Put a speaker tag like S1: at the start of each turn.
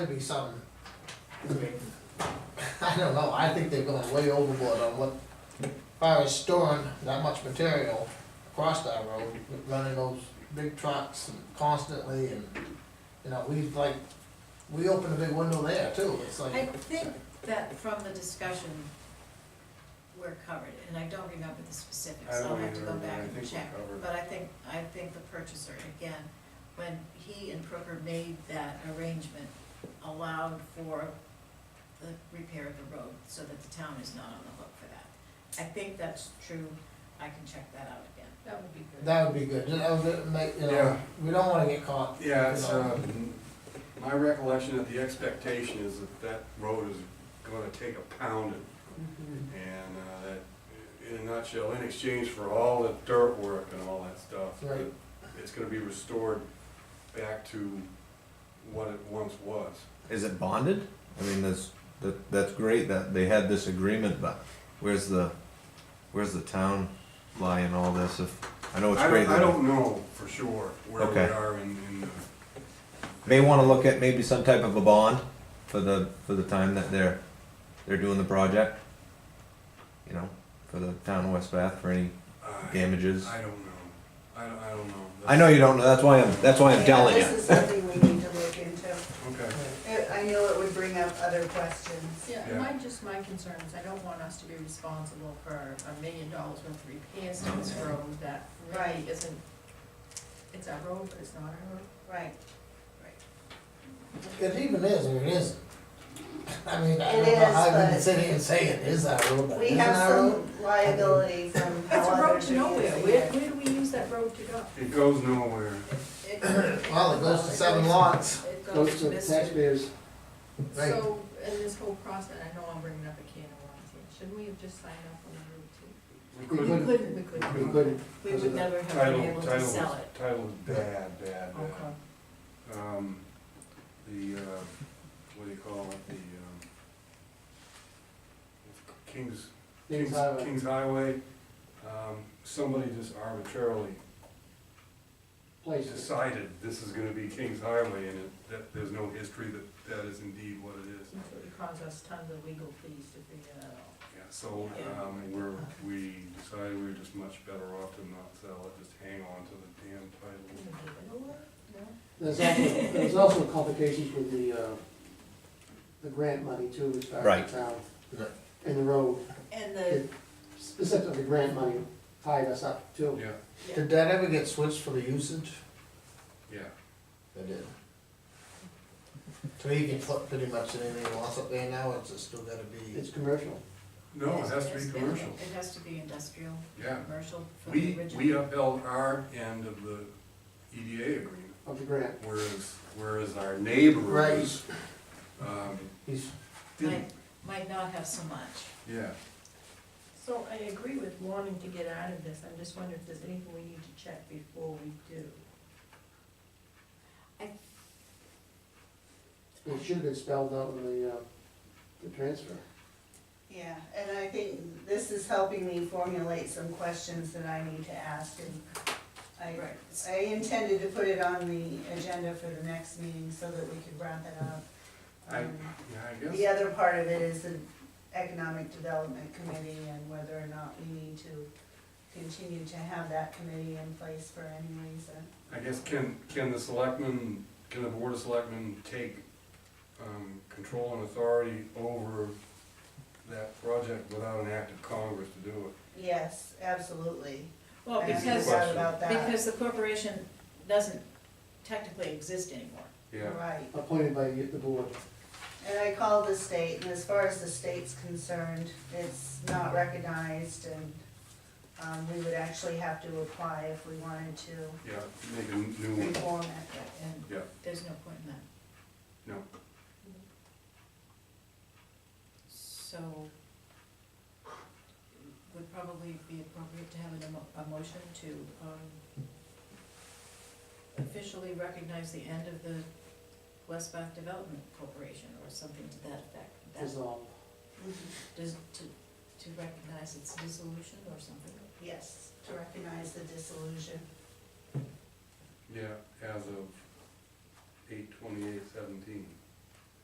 S1: to be something, I mean, I don't know, I think they're going way overboard on what, as far as storing that much material across that road, running those big trucks and constantly and, you know, we've like, we opened a big window there too, it's
S2: I
S1: like,
S2: think that from the discussion, we're covered, and I don't remember the specifics,
S3: I
S2: so I'll
S3: don't
S2: have to
S3: either,
S2: go
S3: but I
S2: back and
S3: think we're
S2: check.
S3: covered.
S2: But I think, I think the purchaser, again, when he and Crooker made that arrangement, allowed for the repair of the road, so that the town is not on the hook for that. I think that's true, I can check that out again.
S4: That would be good.
S1: that would be good, that would make, you know,
S3: Yeah.
S1: we don't wanna get caught.
S3: Yeah, it's, uh, my recollection of the expectation is that that road is gonna take a pounding. And, uh, that, in a nutshell, in exchange for all the dirt work and all that stuff, that
S1: Right.
S3: it's gonna be restored back to what it once was.
S5: Is it bonded? I mean, that's that, that's great that they had this agreement, but where's the where's the town lie in all this? If I know Oh, it's
S3: I
S5: great
S3: don't, I
S5: that
S3: don't know for sure where we
S5: Okay.
S3: are in, in the,
S5: may want to look at maybe some type of a bond for the for the time that they're they're doing the project. You know, for the town of West Bath for any
S3: I,
S5: damages.
S3: I don't know. I don't, I don't know.
S5: I know you don't know. That's why I'm that's why I'm telling
S6: Yeah,
S5: you.
S6: This is something we need to look into.
S3: Okay,
S6: It- I know it would bring up other questions.
S4: Yeah,
S3: Yeah.
S4: my, just my concern is I don't want us to be responsible for a million dollars worth of repairs to this road that really
S6: Right.
S4: isn't, it's our road, but it's not our road.
S6: Right.
S1: It even is, or it isn't. I mean, I don't
S6: It
S1: know
S6: is,
S1: how you can
S6: but-
S1: sit here and say it is our road, but
S6: We
S1: it isn't
S6: have
S1: our road.
S6: some liability from
S4: It's
S6: how
S4: a road
S6: others
S4: to
S6: are
S4: nowhere,
S6: using
S4: where,
S6: it.
S4: where do we use that road to go?
S3: it goes nowhere.
S1: Well, it goes to seven lots.
S4: It
S7: Goes to the
S4: Mr.
S7: taxpayers.
S1: Right.
S4: So, in this whole process, I know I'm bringing up a can of worms here, shouldn't we have just signed up on the road too?
S3: We couldn't-
S7: We
S4: couldn't. We
S3: We
S4: couldn't.
S7: We couldn't,
S2: We would never have been
S3: Title,
S2: able to
S3: title,
S2: sell it.
S3: title is bad, bad, bad. Um, the, uh, what do you call it, the, um, Kings,
S7: Kings
S3: Kings,
S7: Highway.
S3: Kings Highway, um, somebody just arbitrarily
S7: places.
S3: decided this is gonna be Kings Highway and it, that, there's no history that that is indeed what it is.
S4: It would cause us tons of legal fees to figure that out.
S3: Yeah, so, um, we're, we decided we were just much better off to not sell it, just hang on to the damn title.
S7: There's also, there's also complications with the, uh, the grant money too, as far
S5: Right.
S7: as the town.
S1: Right.
S7: And the road,
S2: And the,
S7: specifically grant money tied us up too.
S3: Yeah,
S1: Did that ever get switched for the usage?
S3: yeah.
S1: It did. So you can put pretty much anything you want up there now, it's just still gotta be,
S7: It's commercial.
S3: No, it has to
S2: it's-
S3: be
S2: it's-
S3: commercial,
S2: It has to be industrial,
S3: yeah.
S2: commercial from the
S3: We,
S2: original.
S3: we upheld our end of the EDA agreement,
S7: of the grant.
S3: whereas, whereas our neighbors, um,
S1: he's,
S3: didn't,
S2: might not have so much.
S3: yeah.
S4: So I agree with wanting to get out of this, I'm just wondering if there's anything we need to check before we do.
S7: It should have been spelled out in the, uh, the transfer.
S6: Yeah, and I think this is helping me formulate some questions that I need to ask and I,
S2: Right.
S6: I intended to put it on the agenda for the next meeting so that we could wrap it up.
S3: I, yeah,
S6: Um,
S3: I
S6: The
S3: guess,
S6: other part of it is the Economic Development Committee and whether or not we need to continue to have that committee in place for any reason.
S3: I guess can, can the selectmen, can the board of selectmen take, um, control and authority over that project without an act of Congress to do it?
S6: Yes, absolutely.
S2: Well,
S6: I have no
S2: because,
S6: doubt about that,
S2: because the corporation doesn't technically exist anymore.
S3: Yeah,
S6: right.
S7: Appointed by the board.
S6: And I called the state, and as far as the state's concerned, it's not recognized and, um, we would actually have to apply if we wanted to
S3: yeah, make a new one,
S6: reform it.
S2: And
S3: Yeah.
S2: there's no point in that.
S3: No.
S2: So would probably be appropriate to have an emo- a motion to um, officially recognize the end of the West Bath Development Corporation or something to that effect. That-
S7: Dissolve.
S2: does- to, to recognize its dissolution or something.
S6: Yes, to recognize the dissolution.
S3: yeah, as of eight twenty-eight seventeen.